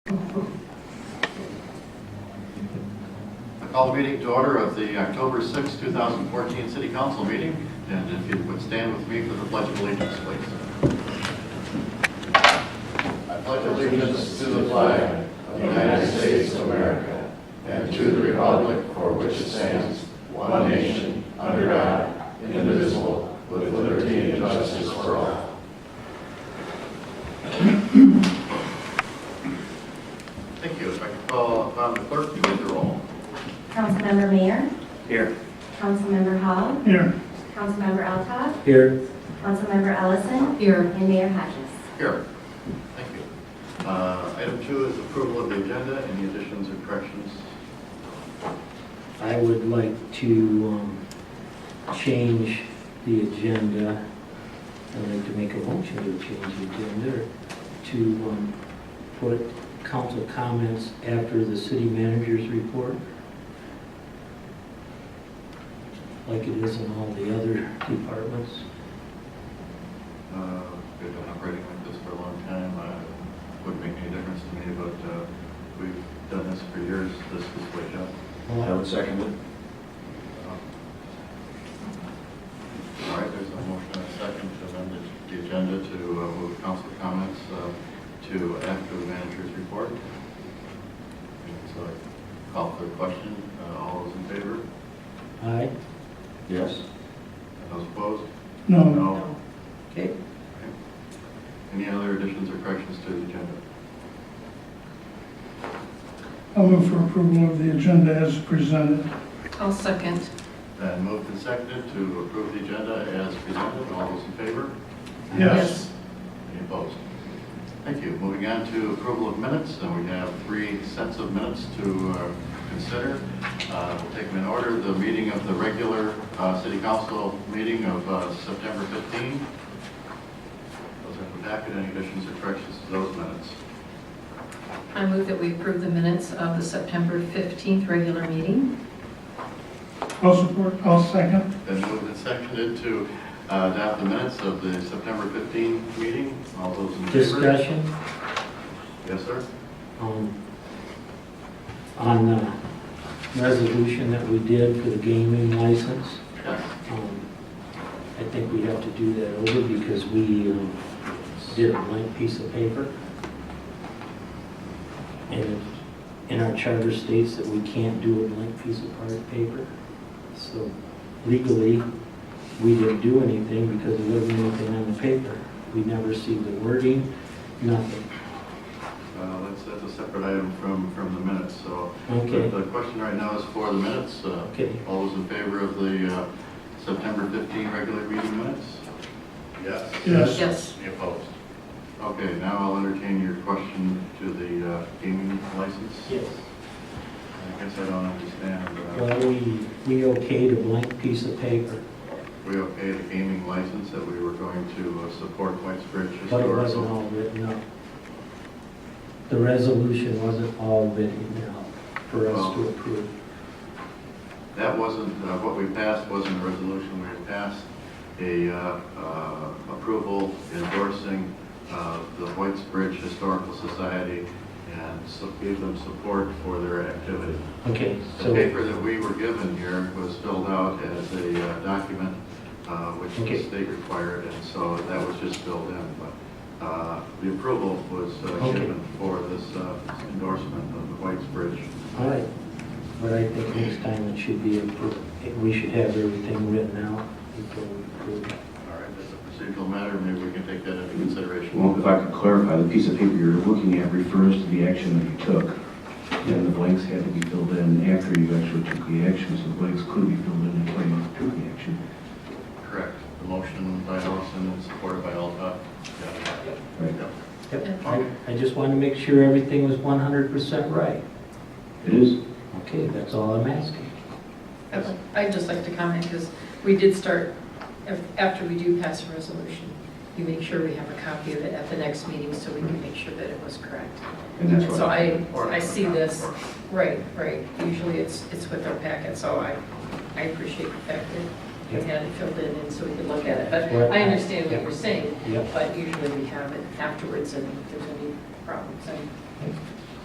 I call the meeting to order of the October 6, 2014 City Council meeting, and if you would stand with me for the pledge of allegiance, please. I pledge allegiance to the flag of the United States of America and to the republic for which it stands, one nation, under God, indivisible, with liberty and justice for all. Thank you. If I could call upon the clerk to read the roll. Councilmember Mayor, Here. Councilmember Hall, Here. Councilmember Altough, Here. Councilmember Ellison. Here. And Mayor Hodges. Here, thank you. Uh, Item two is approval of the agenda, any additions or corrections? I would like to um, change the agenda. I'd like to make a motion to change the agenda to um, put council comments after the city manager's report. Like it is in all the other departments. Uh, We've been operating like this for a long time, Uh, wouldn't make any difference to me, but uh, we've done this for years, this is way up. Well, would second it. All right, there's a motion and a second to amend the- the agenda to uh, move council comments uh, to after the manager's report. And So I call for a question, Uh, all those in favor? Aye. Yes. Those opposed? No, No. Okay. Any other additions or corrections to the agenda? I'll move for approval of the agenda as presented. I'll second. Then moved and seconded to approve the agenda as presented. All those in favor? Yes. Any opposed? Thank you. Moving on to approval of minutes, and we have three sets of minutes to uh, consider. Uh, We'll take them in order. The meeting of the regular uh, city council meeting of uh, September 15. Those are in the packet. Any additions or corrections to those minutes? I move that we approve the minutes of the September 15th regular meeting. I'll support, I'll second. Been moved and seconded to uh, adopt the minutes of the September 15 meeting. All those in favor? Discussion? Yes, sir. um, on the resolution that we did for the gaming license. Yes. Um, I think we have to do that over because we um, did a blank piece of paper. And in our charter states that we can't do a blank piece of part- paper. So legally, we didn't do anything because there wasn't anything on the paper. We never see the wording, nothing. Uh, That's, that's a separate item from, from the minutes, so. Okay. The the question right now is for the minutes. Uh, Okay. All those in favor of the uh, September 15 regular meeting minutes? Yes. Yes. Yes. Any opposed? Okay, now I'll entertain your question to the uh, gaming license. Yes. I guess I don't understand. uh, Well, we, we okayed a blank piece of paper, We okayed a gaming license that we were going to uh, support White Bridge but it wasn't Historical. all written up. The resolution wasn't all written out for us to approve. That wasn't, uh, what we passed wasn't a resolution, we had passed a uh, uh, approval endorsing uh, the White Bridge Historical Society and so gave them support for their activity. Okay, The so, paper that we were given here was filled out as a uh, document, uh, which the Okay. state required, and so that was just filled in. But uh, the approval was uh, Okay. given for this uh, endorsement of the White's Bridge. all right. But I think next time it should be approved, we should have everything written out before we approve. All right, that's a procedural matter, maybe we can take that into consideration. Well, if I could clarify, the piece of paper you're looking at refers to the action that you took, and the blanks had to be filled in after you actually took the action, so the blanks could be filled in before you took the action. Correct. The motion by Ellison and supported by Altough. Right. Yep, I, I just wanted to make sure everything was one hundred percent right. It is? Okay, that's all I'm asking. I'd like- I'd just like to comment, because we did start, af- after we do pass a resolution, you make sure we have a copy of it at the next meeting, so we can make sure that it was correct. And that's So why. I, I see this, right, right, usually it's, it's with our packet, so I, I appreciate the fact that we had it filled in, and so we could look at it, but I understand what you're saying, Yep. But usually we have it afterwards and if there's any problems. and